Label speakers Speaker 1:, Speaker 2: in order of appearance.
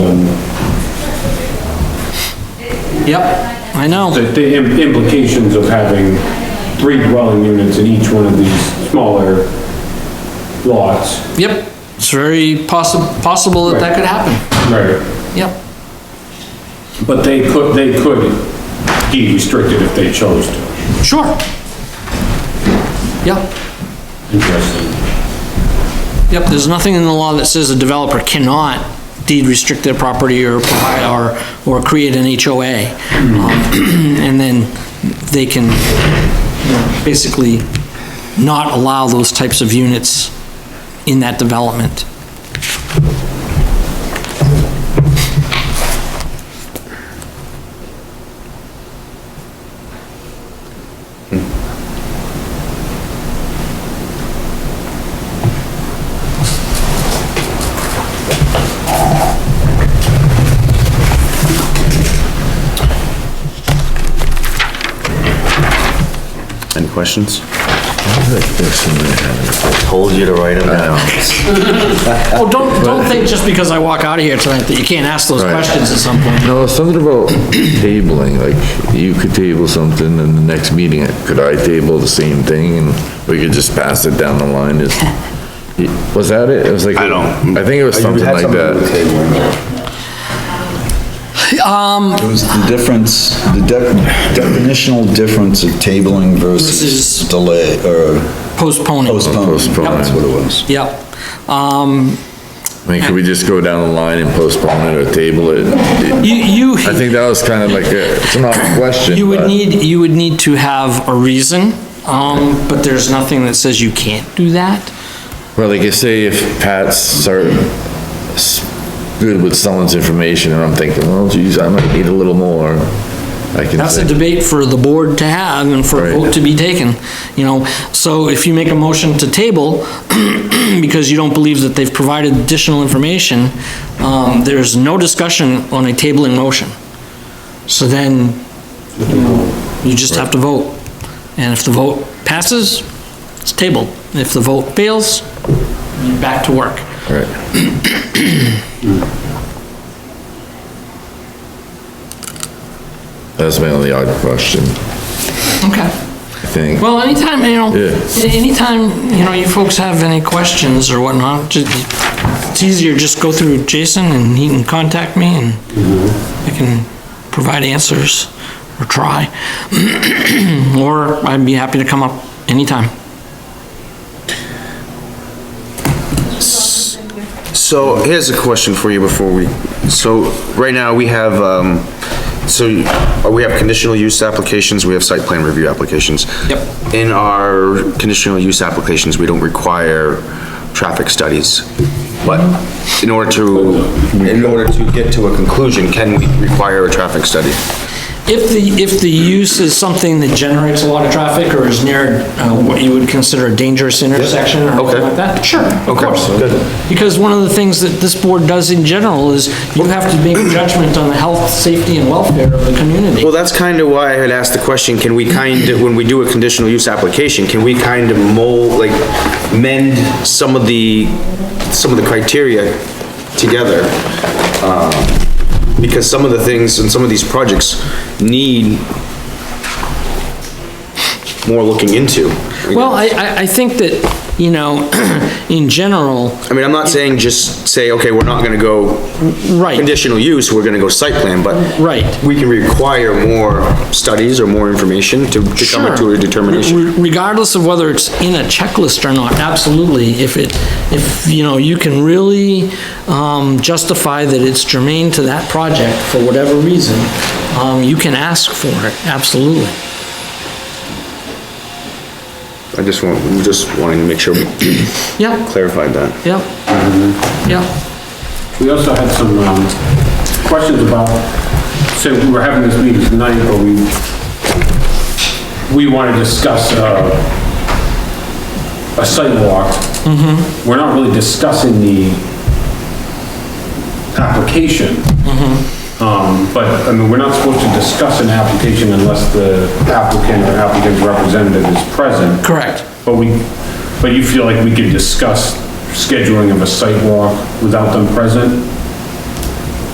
Speaker 1: Yep, I know.
Speaker 2: The, the im- implications of having three dwelling units in each one of these smaller lots.
Speaker 1: Yep, it's very possi- possible that that could happen.
Speaker 2: Right.
Speaker 1: Yep.
Speaker 2: But they could, they could be restricted if they chose to.
Speaker 1: Sure. Yep,
Speaker 2: Interesting.
Speaker 1: yep, there's nothing in the law that says a developer cannot deed restrict their property or provide, or, or create an HOA. Um, And then they can you know, basically not allow those types of units in that development.
Speaker 3: Any questions?
Speaker 4: I told you to write them down.
Speaker 1: Oh, don't, don't think just because I walk out of here tonight that you can't ask those
Speaker 4: Right.
Speaker 1: questions at some point.
Speaker 5: No, it's something about tabling, like, you could table something and the next meeting, could I table the same thing and we could just pass it down the line is, was that it? It was like.
Speaker 3: I don't-
Speaker 5: I think it was something like that.
Speaker 6: It was the difference, the de- definitional difference of tabling
Speaker 1: Versus- Oh,
Speaker 6: versus delay, or
Speaker 1: Postponing.
Speaker 6: postponing.
Speaker 5: Postponing.
Speaker 6: That's what it was.
Speaker 1: Yep. Um,
Speaker 5: I mean, could we just go down the line and postpone it or table it?
Speaker 1: you, you.
Speaker 5: I think that was kind of like a, it's not a question.
Speaker 1: You would
Speaker 5: but-
Speaker 1: need, you would need to have a reason, um, but there's nothing that says you can't do that.
Speaker 5: Well, like you say, if Pat's are s- good with someone's information, and I'm thinking, well, geez, I might need a little more, I can
Speaker 1: That's a
Speaker 5: say,
Speaker 1: debate for the board to have and for a
Speaker 5: Right.
Speaker 1: vote to be taken, you know? So if you make a motion to table, because you don't believe that they've provided additional information, um, there's no discussion on a tabling motion. So then, you know, you just have to vote. And if the vote passes, it's tabled. If the vote fails, you're back to work.
Speaker 5: all right. That's my only odd question,
Speaker 1: Okay.
Speaker 5: I think.
Speaker 1: Well, anytime, you know,
Speaker 5: Yeah.
Speaker 1: anytime, you know, you folks have any questions or whatnot, ju- it's easier, just go through Jason and he can contact me and I can provide answers or try. Or I'd be happy to come up anytime.
Speaker 3: So here's a question for you before we, so right now we have, um, so you- we have conditional use applications, we have site plan review applications.
Speaker 1: Yep.
Speaker 3: In our conditional use applications, we don't require traffic studies. But in order to, in order to get to a conclusion, can we require a traffic study?
Speaker 1: If the, if the use is something that generates a lot of traffic or is near uh, what you would consider a dangerous intersection or something
Speaker 3: Okay.
Speaker 1: like that, sure, of
Speaker 3: Okay,
Speaker 1: course.
Speaker 3: good.
Speaker 1: Because one of the things that this board does in general is you have to make a judgment on the health, safety, and welfare of the community.
Speaker 3: Well, that's kind of why I had asked the question, can we kind of, when we do a conditional use application, can we kind of mold, like, mend some of the, some of the criteria together? Um, Because some of the things and some of these projects need more looking into.
Speaker 1: Well, I, I, I think that, you know, in general,
Speaker 3: I mean, I'm not saying just say, okay, we're not gonna go
Speaker 1: right,
Speaker 3: conditional use, we're gonna go site plan, but
Speaker 1: right.
Speaker 3: we can require more studies or more information to to come to
Speaker 1: Sure.
Speaker 3: a determination.
Speaker 1: Re- Regardless of whether it's in a checklist or not, absolutely, if it, if, you know, you can really um, justify that it's germane to that project for whatever reason, um, you can ask for it, absolutely.
Speaker 3: I just want, I'm just wanting to make sure we
Speaker 1: Yep,
Speaker 3: clarified that.
Speaker 1: yep, yep,
Speaker 2: We also had some, um, questions about, so we were having this meeting tonight, but we, we want to discuss, uh, a sidewalk. Mm-hmm. We're not really discussing the application. Mm-hmm. Um, but, I mean, we're not supposed to discuss an application unless the applicant or applicant's representative is present.
Speaker 1: correct.
Speaker 2: But we, but you feel like we could discuss scheduling of a site walk without them present?